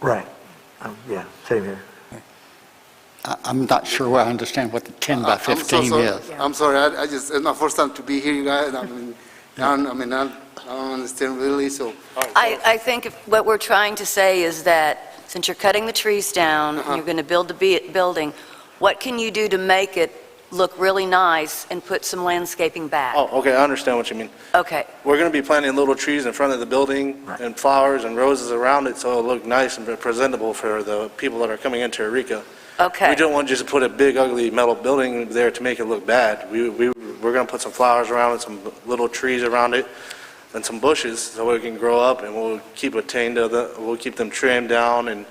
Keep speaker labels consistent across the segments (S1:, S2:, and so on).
S1: Right.
S2: Oh,
S1: Um, Yeah, same here.
S3: I- I'm not sure I understand what the 10 by
S4: Uh, I'm so
S3: 15
S4: sorry.
S3: is.
S4: I'm sorry, I, I just, it's my first time to be here, you guys, I mean, I don't, I mean, I don't- I don't understand really, so.
S5: I, I think if- what we're trying to say is that, since you're cutting the trees down, and
S4: Uh-huh.
S5: you're going to build the be- building, what can you do to make it look really nice and put some landscaping back?
S6: Oh, okay, I understand what you mean.
S5: Okay,
S6: We're going to be planting little trees in front of the building
S1: Right.
S6: and flowers and roses around it, so it'll look nice and presentable for the people that are coming into Eureka.
S5: okay.
S6: We don't want just to put a big ugly metal building there to make it look bad. We, we, we're going to put some flowers around it, some little trees around it, and some bushes, so it can grow up, and we'll keep attained to the, we'll keep them trimmed down and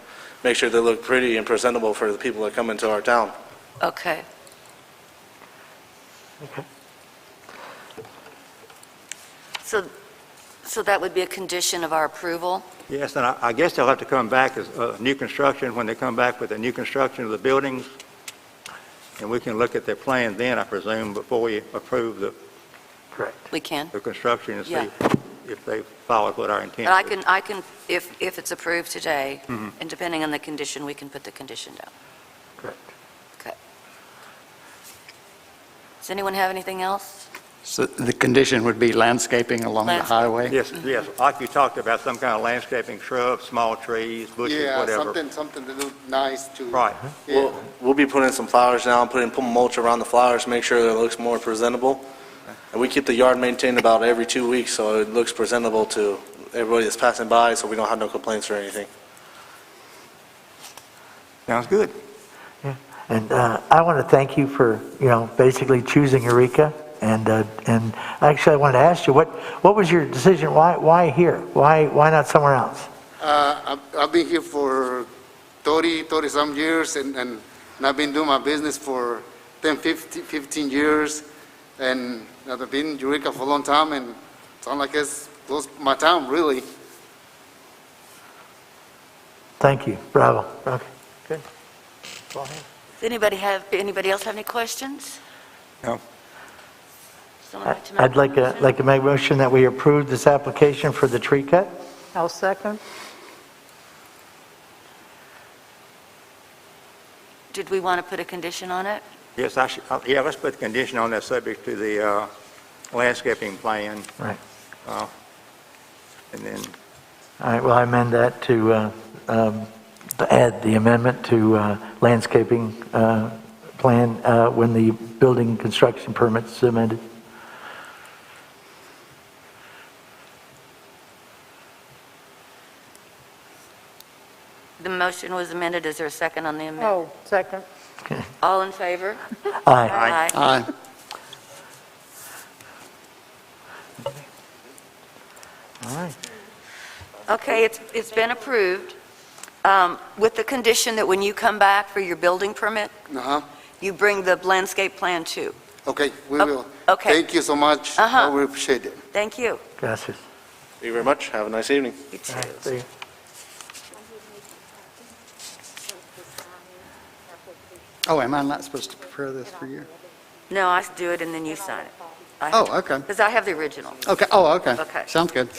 S6: make sure they look pretty and presentable for the people that come into our town.
S5: Okay. So, so that would be a condition of our approval?
S1: Yes, and I I guess they'll have to come back as uh, new construction, when they come back with the new construction of the buildings, and we can look at their plan then, I presume, before we approve the Correct.
S5: We can?
S1: the construction and see
S5: Yeah.
S1: if they followed what our intent
S5: But I
S1: was.
S5: can, I can, if, if it's approved today,
S6: Mm-hmm.
S5: and depending on the condition, we can put the condition down.
S1: Correct.
S5: Okay. Does anyone have anything else?
S3: So the condition would be landscaping along the
S5: Landscape.
S3: highway?
S1: Yes, yes, like you talked about, some kind of landscaping, shrubs, small trees, bushes,
S4: Yeah,
S1: whatever.
S4: something, something to look nice to.
S1: Right.
S4: Yeah.
S6: We'll, we'll be putting some flowers down, putting, putting mulch around the flowers, make sure that it looks more presentable. And we keep the yard maintained about every two weeks, so it looks presentable to everybody that's passing by, so we don't have no complaints or anything.
S1: Sounds good.
S2: And uh, I want to thank you for, you know, basically choosing Eureka. And, uh, and actually, I wanted to ask you, what, what was your decision? Why, why here? Why, why not somewhere else?
S4: Uh, I've, I've been here for 30, 30 some years, and, and and I've been doing my business for 10, 15, 15 years, and I've been in Eureka for a long time, and it's not like it's close to my town, really.
S2: Thank you. Bravo. Okay.
S5: Does anybody have, anybody else have any questions?
S1: No.
S5: Someone
S2: I-
S5: like to make
S2: I'd
S5: a
S2: like to,
S5: motion?
S2: like to make a motion that we approve this application for the tree cut.
S7: I'll second.
S5: Did we want to put a condition on it?
S1: Yes, I should, uh, yeah, let's put the condition on that subject to the uh, landscaping plan.
S2: Right.
S1: uh, And then,
S2: All right, well, I amend that to uh, um, add the amendment to uh, landscaping uh, plan uh, when the building construction permit's submitted.
S5: The motion was amended. Is there a second on the amendment?
S7: Oh, second.
S5: All in favor?
S2: Aye.
S3: Aye.
S2: All right.
S5: Okay, it's, it's been approved, um, with the condition that when you come back for your building permit,
S4: Uh-huh,
S5: you bring the landscape plan too.
S4: okay, we
S5: Oh,
S4: will.
S5: okay.
S4: Thank you so much. I
S5: Uh-huh.
S4: will appreciate it.
S5: Thank you.
S2: Gracias.
S6: Thank you very much. Have a nice evening.
S5: You too.
S2: All right, see you.
S3: Oh, am I not supposed to prepare this for you?
S5: No, I do it and then you sign it.
S3: Oh, okay,
S5: Because I have the original.
S3: okay, oh, okay.
S5: Okay.
S3: Sounds good.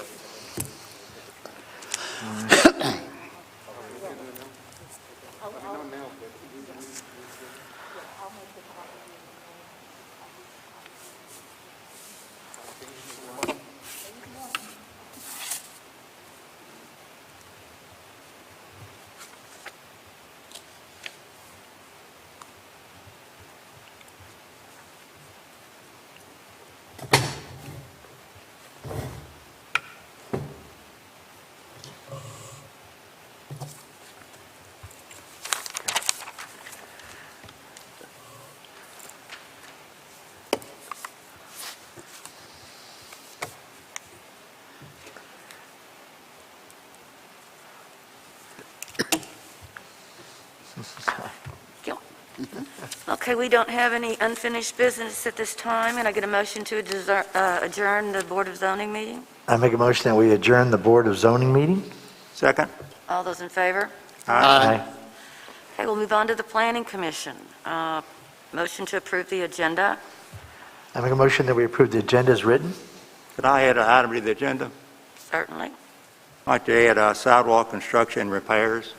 S5: Okay, we don't have any unfinished business at this time, and I get a motion to adjourn- uh, adjourn the Board of Zoning meeting?
S2: I make a motion that we adjourn the Board of Zoning meeting.
S1: second?
S5: All those in favor?
S2: Aye.
S5: Okay, we'll move on to the Planning Commission. Uh, Motion to approve the agenda?
S2: I make a motion that we approve the agenda as written.
S1: Could I add an item to the agenda?
S5: Certainly.
S1: I'd like to add uh, sidewalk construction and repairs.